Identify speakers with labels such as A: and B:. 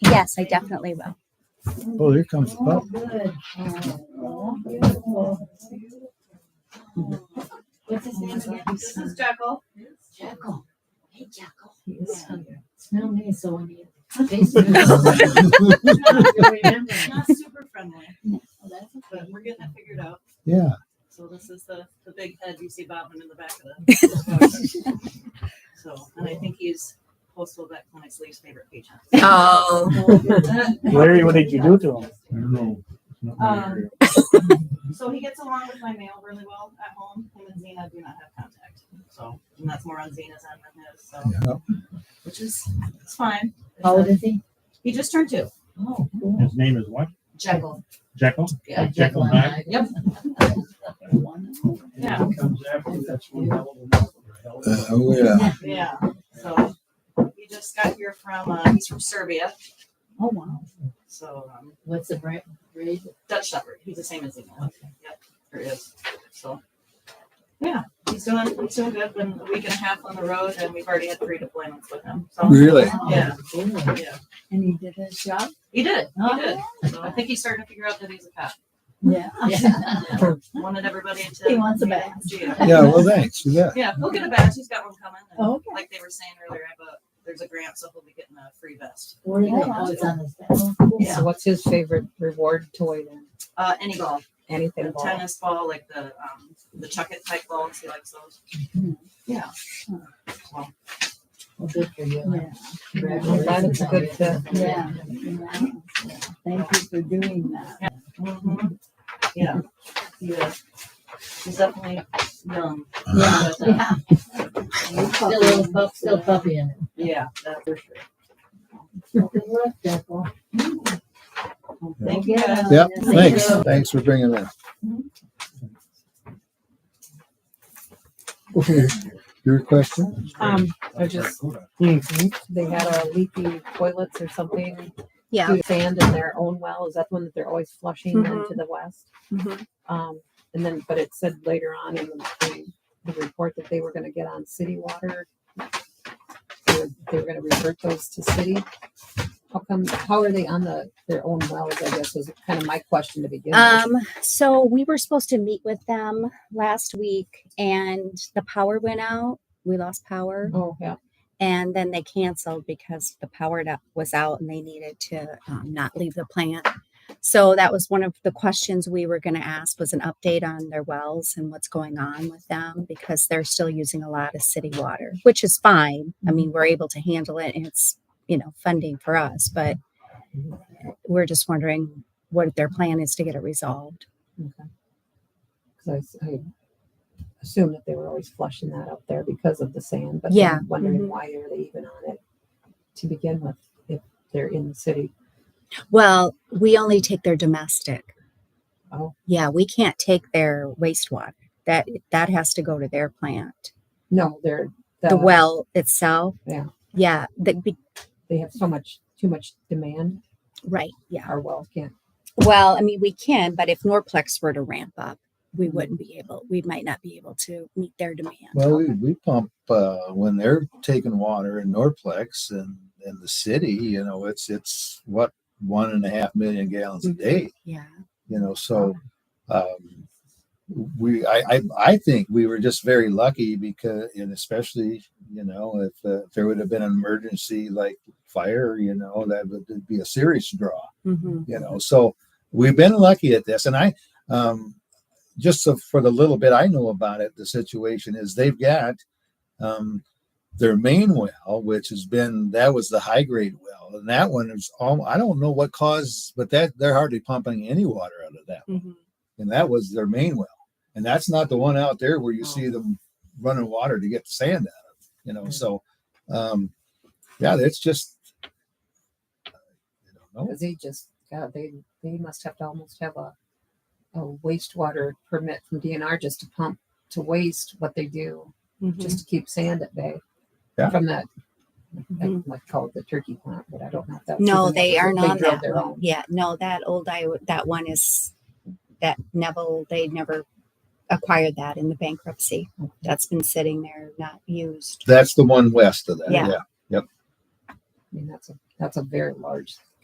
A: Yes, I definitely will.
B: Oh, here comes the pup.
C: Good. Beautiful. What's his name again?
D: This is Jekyll.
C: Jackal. Hey, Jackal. He is funny. Smell me, so when you. Face me. You remember.
D: Not super friendly,
C: Oh, that's okay.
D: but we're getting it figured out.
B: Yeah.
D: So this is the, the big head you see bobbing in the back of the. So, and I think he's postal vet clinic's least favorite patient.
E: Oh,
F: Larry, what did you do to him?
B: I don't know. It's not my
D: Um,
B: area.
D: So he gets along with my male really well at home. Him and Zena do not have contact. So, and that's more on Zena's end than his, so,
B: Yeah.
D: which is, it's fine.
C: How old is he?
D: He just turned two.
C: Oh, cool.
F: His name is what?
C: Jackal.
F: Jekyll?
C: Yeah,
F: Jekyll and Hyde.
C: Yep.
D: Yeah.
F: Comes after, that's one hell of a hell of
B: Uh, oh, yeah.
D: Yeah, so he just got here from, uh, he's from Serbia,
C: Oh, wow.
D: so, um,
C: What's the brand? Raise it.
D: Dutch Shepherd. He's the same as Zena. Yep, there he is. So, yeah, he's doing, he's doing good. Been a week and a half on the road, and we've already had three deployments with him. So,
B: Really?
D: Yeah.
C: Cool.
D: yeah,
G: And he did his job?
D: he did. He did.
G: Oh,
D: So I think he's starting to figure out that he's a cop.
G: Yeah.
C: Yeah.
D: Wanted everybody to.
G: He wants a badge.
D: Yeah.
B: Yeah, well, thanks. You bet.
D: Yeah, he'll get a badge. He's got one coming. and
G: Okay.
D: Like they were saying earlier, I have a, there's a grant, so he'll be getting a free vest.
C: Where did it?
G: Yeah.
C: Oh, it's on this.
D: Yeah.
E: so what's his favorite reward toy then?
D: Uh, any ball.
E: Anything
D: the
E: ball?
D: tennis ball, like the um, the chuck it type balls. He likes those. Yeah. So,
C: Well, good for you.
G: Yeah.
C: Congratulations.
E: Glad it's a good fit.
G: Yeah.
C: Yeah.
G: Thank you for doing that.
D: mhm. yeah, he is. He's definitely young.
C: Yeah.
D: But, uh,
C: Still a little pup, still puppy in it.
D: yeah, that's for sure.
C: Well, Good luck, Jackal.
D: Thank you. guys.
B: Yep. Thanks. Thanks for bringing that. Okay. Your question?
E: Um, I just, they had a leaky toilets or something.
A: Yeah.
E: through Sand in their own well. Is that the one that they're always flushing
A: Mm-hmm.
E: into the west?
A: Mhm.
E: Um, and then, but it said later on in the, in the report that they were going to get on city water. They were, they were going to revert those to city. How come? How are they on the their own wells? I guess was kind of my question to begin. with.
A: Um, so we were supposed to meet with them last week and the power went out. We lost power.
E: oh yeah.
A: and then they canceled because the power da- was out and they needed to um, not leave the plant so that was one of the questions we were going to ask was an update on their wells and what's going on with them because they're still using a lot of city water which is fine i mean we're able to handle it and it's you know funding for us but we're just wondering what their plan is to get it resolved
E: because I, assume that they were always flushing that up there because of the sand. But
A: Yeah.
E: I'm wondering
A: Mhm.
E: why are they even on it to begin with if they're in the city?
A: well we only take their domestic
E: Oh.
A: yeah we can't take their wastewater that that has to go to their plant
E: No, they're
A: the well itself.
E: Yeah.
A: Yeah. The, be,
E: They have so much too much demand.
A: right. Yeah.
E: Our wells can't.
A: Well, I mean, we can, but if Norplex were to ramp up, we
E: Mhm.
A: wouldn't be able, we might not be able to meet their demand.
B: Well, we, we pump, uh, when they're taking water in Norplex and, in the city, you know, it's, it's what, one and a half million gallons a day.
A: yeah.
B: you know so um we I, I i think we were just very lucky because and especially you know if, uh, if there would have been an emergency like fire you know that would it'd be a serious draw
A: Mm-hmm.
B: you know so we've been lucky at this and i um just so for the little bit i know about it the situation is they've got um their main well which has been that was the high grade well and that one is all i don't know what caused but that they're hardly pumping any water out of that and that was their main well and that's not the one out there where you see them running water to get the sand out of you know so um yeah it's just i don't know
E: Because they just God, they they must have to almost have a a wastewater permit from DNR just to pump to waste what they do
A: Mm-hmm.
E: just to keep sand at bay.
B: Yeah.
E: From that, I
A: Mhm.
E: might call it the turkey plant, but I don't know if that's.
A: No,
E: even-
A: they aren't on
E: drilled
A: that
E: their
A: one.
E: own.
A: Yeah. No, that old, I, that one is, that Neville, they never acquired that in the bankruptcy.
E: Mm-hmm.
A: That's been sitting there, not used.
B: That's the one west of that.
A: Yeah.
B: Yeah.
E: I mean, that's a, that's a very large